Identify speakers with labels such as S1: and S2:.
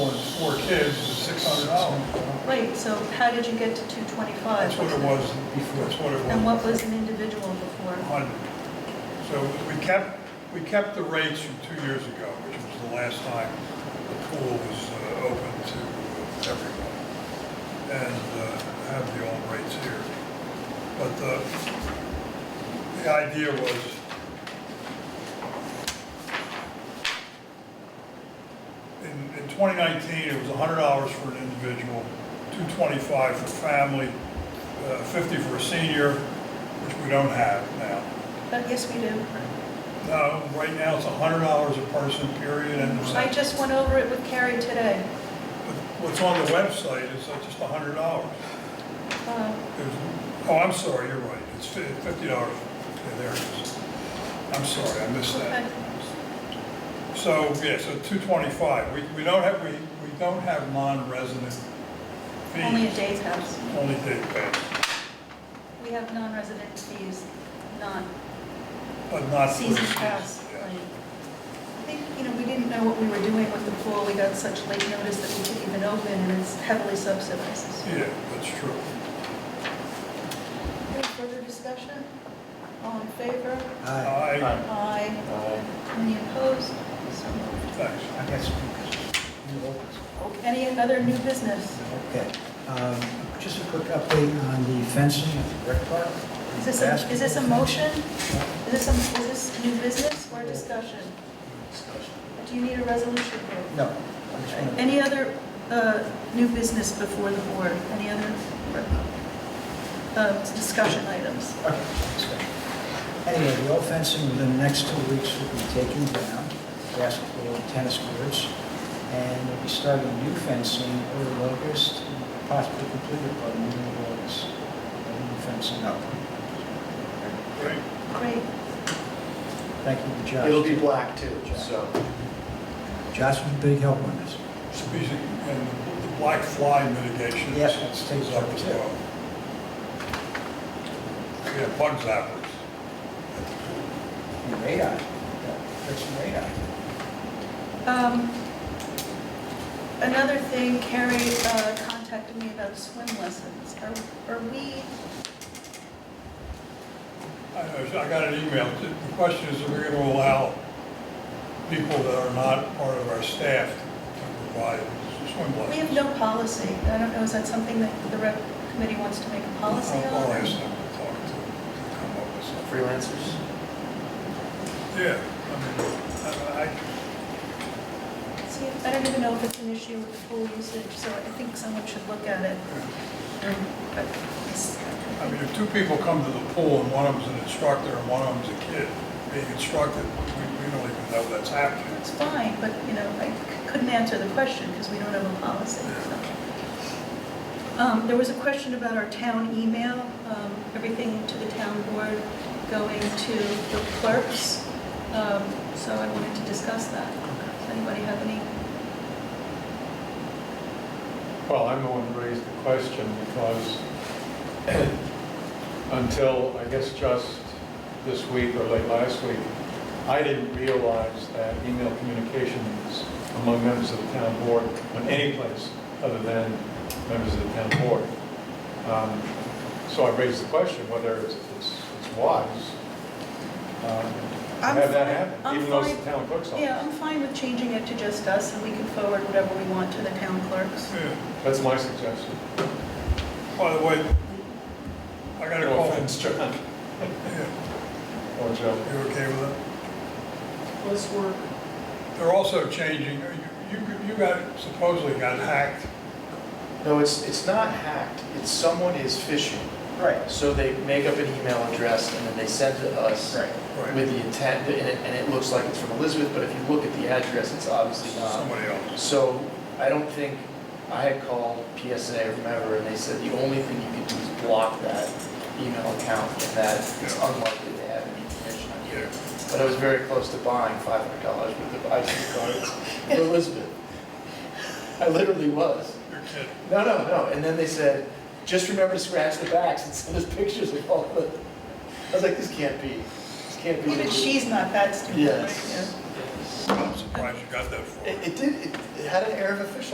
S1: four kids is six hundred dollars.
S2: Wait, so how did you get to 225?
S1: That's what it was before, that's what it was.
S2: And what was an individual before?
S1: 100. So we kept, we kept the rates from two years ago, which was the last time the pool was uh, open to everyone, and uh, have the old rates here. But the, the idea was, in, in 2019, it was $100 for an individual, 225 for family, uh, 50 for a senior, which we don't have now.
S2: But yes, we do.
S1: No, right now it's hundred dollars a person, period, and
S2: I just went over it with Carrie today.
S1: what's on the website is uh, just hundred dollars.
S2: Uh,
S1: Oh, I'm sorry, you're right, it's fif- fifty dollars. Yeah, there it is. I'm sorry, I missed
S2: Okay.
S1: that. So, yeah, so two twenty-five. We, we don't have, we, we don't have non-resident fees.
S2: Only a day's house.
S1: Only day pass,
S2: We have non-resident fees, not
S1: but not. for-
S2: season pass.
S1: Yeah.
S2: like- I think, you know, we didn't know what we were doing with the pool. We got such late notice that we couldn't even open, and it's heavily subsidized.
S1: Yeah, that's true.
S2: Any further discussion? All in favor?
S3: Aye.
S1: I,
S2: Aye. Any opposed? So moved.
S1: thanks.
S3: I guess you open.
S2: Any other new business?
S3: Okay. Um, Just a quick update on the fencing at the rec park.
S2: Is this, a- is this a motion? Is this, a- is this new business or discussion?
S3: Discussion.
S2: Do you need a resolution for
S3: No. I just
S2: it?
S3: wanna-
S2: Any other uh, new business before the board? Any other uh, discussion items?
S3: Okay, discussion. Anyway, the old fencing within the next two weeks will be taken down, basketball and tennis courts, and we'll be starting new fencing early August, and possibly completed by the middle of August. And New fencing up.
S1: Great.
S2: Great.
S3: Thank you, Josh.
S4: It'll be black too, so.
S3: Josh was a big help on this.
S1: Species and the black fly mitigation.
S3: Yes, it's taken
S1: is up as
S3: care of.
S1: well. We have bug zappers.
S3: And radar, fixed radar.
S2: Um, Another thing, Carrie uh, contacted me about swim lessons. Are- Are we,
S1: I know, I got an email. The question is, are we going to allow people that are not part of our staff to provide swim
S2: we
S1: lessons?
S2: have no policy. I don't know, is that something that the rep committee wants to make a policy
S1: I'll- I'll ask
S2: on?
S1: them to talk to, to come up with something.
S4: Freelancers?
S1: Yeah, I mean, I, I-
S2: See, I don't even know if it's an issue with the pool usage, so I think someone should look at it. But it's-
S1: I mean, if two people come to the pool and one of them's an instructor and one of them's a kid being instructed, we, we don't even know that's happening.
S2: It's fine, but, you know, I c- couldn't answer the question because we don't have a policy, so. Um, There was a question about our town email, um, everything to the town board going to the clerks. Um, So I wanted to discuss that. Does anybody have any?
S5: Well, I'm the one who raised the question because until, I guess, just this week or late last week, I didn't realize that email communications among members of the town board on any place other than members of the town board. Um, So I raised the question whether it's it's- it's wise um, to
S2: I'm
S5: have that
S2: fine- I'm
S5: happen, even though it's
S2: fine.
S5: the town clerk's
S2: Yeah, I'm
S5: office.
S2: fine with changing it to just us, and we can forward whatever we want to the town clerks.
S1: Yeah.
S5: That's my suggestion.
S1: By the way, I got a
S5: No
S1: call.
S5: offense,
S1: from-
S5: John.
S1: Yeah,
S5: Or Joe.
S1: You okay with it?
S4: Plus work.
S1: They're also changing, you, you- you got, supposedly got hacked.
S4: No, it's, it's not hacked, it's someone is phishing.
S3: Right.
S4: So they make up an email address and then they send to us
S3: Right.
S4: with the intent, and it, and it looks like it's from Elizabeth, but if you look at the address, it's obviously
S5: uh,
S4: not.
S1: Somebody else.
S4: So I don't think, I had called PSA or whomever, and they said the only thing you can do is block that email account, and that it's
S1: Yeah.
S4: unlikely they have any information on you.
S1: Yeah.
S4: But I was very close to buying five hundred dollars worth of ID cards in Elizabeth. I literally was.
S1: You're kidding.
S4: No, no, no. And then they said, just remember to scratch the backs and send us pictures of all the. I was like, this can't be. This can't be.
S2: Even
S4: the-
S2: she's not that stupid. right?
S4: Yes.
S2: Yeah.
S4: Yes.
S1: I'm surprised you got that far.
S4: It, it did. It, it had an air of official.